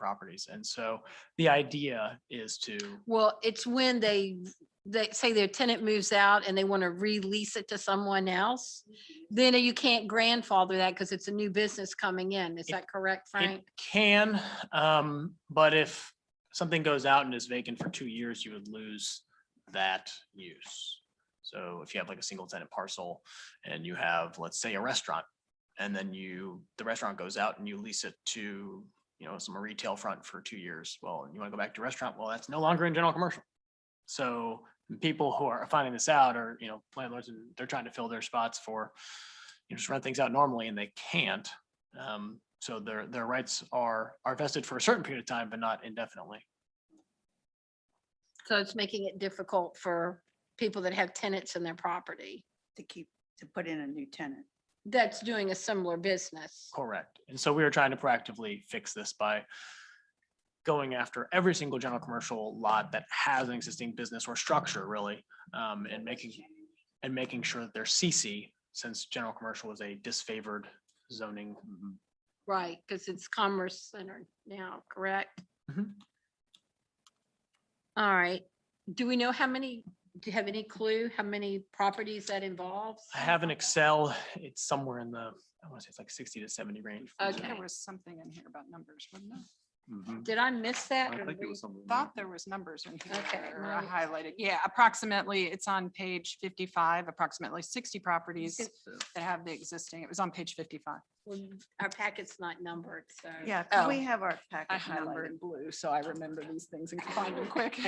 properties. And so the idea is to, Well, it's when they, they say their tenant moves out and they want to release it to someone else. Then you can't grandfather that because it's a new business coming in. Is It- that correct, it Frank? can, um, but if something goes out and is vacant for two years, you would lose that use. So if you have like a single tenant parcel and you have, let's say, a restaurant, and then you, the restaurant goes out and you lease it to, you know, some retail front for two years, well, you want to go back to restaurant, well, that's no longer in general commercial. So people who are finding this out are, you know, landlords, and they're trying to fill their spots for, you know, just run things out normally and they can't. Um, so their, their rights are, are vested for a certain period of time, but not indefinitely. So it's making it difficult for people that have tenants in their property to keep, to put in a new tenant. that's doing a similar business. Correct. And so we are trying to proactively fix this by going after every single general commercial lot that has an existing business or structure really, um, and making, and making sure that they're CC, since general commercial is a disfavored zoning. Right, because it's Commerce Center now, correct? Mhm. All right. Do we know how many, do you have any clue how many properties that involves? I have an Excel, it's somewhere in the, I want to say it's like sixty to seventy range. I think there There Okay. was something in here about numbers, wasn't there? Mhm. Did Mm-hmm. I miss that? or were you- Thought there was numbers in here Okay, that are mine- highlighted. Yeah, approximately, it's on page fifty-five, approximately sixty properties that have the existing. It was on page fifty-five. Well, Our packet's not numbered, so. Yeah, 'cause Oh. we have our I package highlighted numbered. in blue, so I remember these things and can find them quick.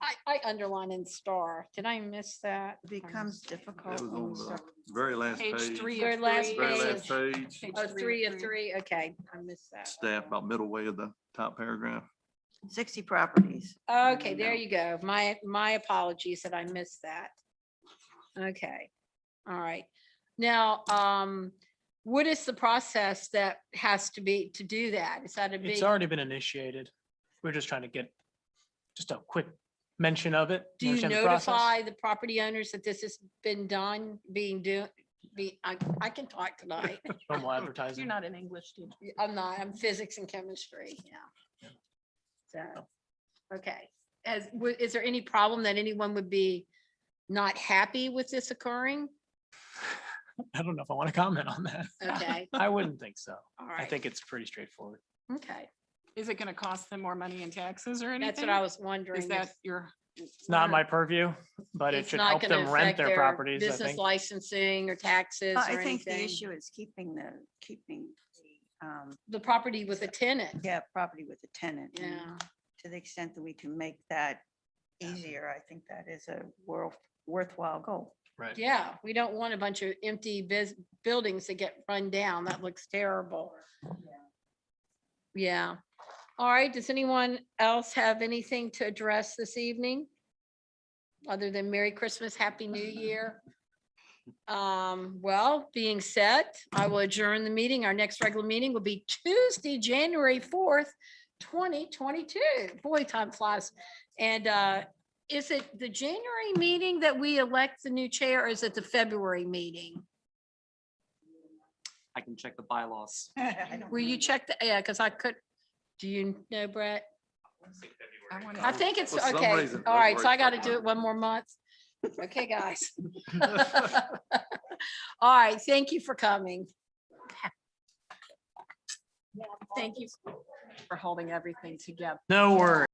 I, I underline and star. Did I miss that? It Becomes difficult. That was when we on the start- Very last Page page. three Your of last three. Very page. last page, Page Oh, three of three. three, okay, I missed that. staff about middle way of the top paragraph. Sixty properties. Okay, Mm, there no. you go. My, my apologies that I missed that. Okay, all right. Now, um, what is the process that has to be to do that? Is that a big? It's already been initiated. We're just trying to get just a quick mention of it. Do you understand the process. notify the property owners that this has been done, being do, be, I, I can talk tonight. Normal advertising. not in English teacher. Y- I'm not, I'm physics and chemistry, yeah. So, okay, as, wa- is there any problem that anyone would be not happy with this occurring? I don't know if I want to comment on that. Okay, I wouldn't think so. all I right, think it's pretty straightforward. okay, Is it gonna cost them more money in taxes or anything? that's what I was Is wondering. that if your? It's not my purview, but it it's should not help gonna them rent affect their properties, I Business think. licensing or taxes Well, I or think the anything, issue is keeping the, keeping the, um, the property with a tenant, yeah, property with the tenant. and yeah. To the extent that we can make that easier, I think that is a worth worthwhile goal. Right. Yeah, we don't want a bunch of empty biz, buildings that get run down. That looks terrible. Yeah. All right, does anyone else have anything to address this evening? Other than Merry Christmas, Happy New Year? Um, well, being said, I will adjourn the meeting. Our next regular meeting will be Tuesday, January fourth, twenty twenty-two. Boy, time flies. And, uh, is it the January meeting that we elect the new chair or is it the February meeting? I can check the bylaws. I don't Will you check the, yeah, because I could, do you know, Brett? I wanna- I think it's, For some okay, reason, all right, so I February's got to not do it mine. one more month. Okay, guys. All right, thank you for coming. Thank you. For holding everything together. No worries.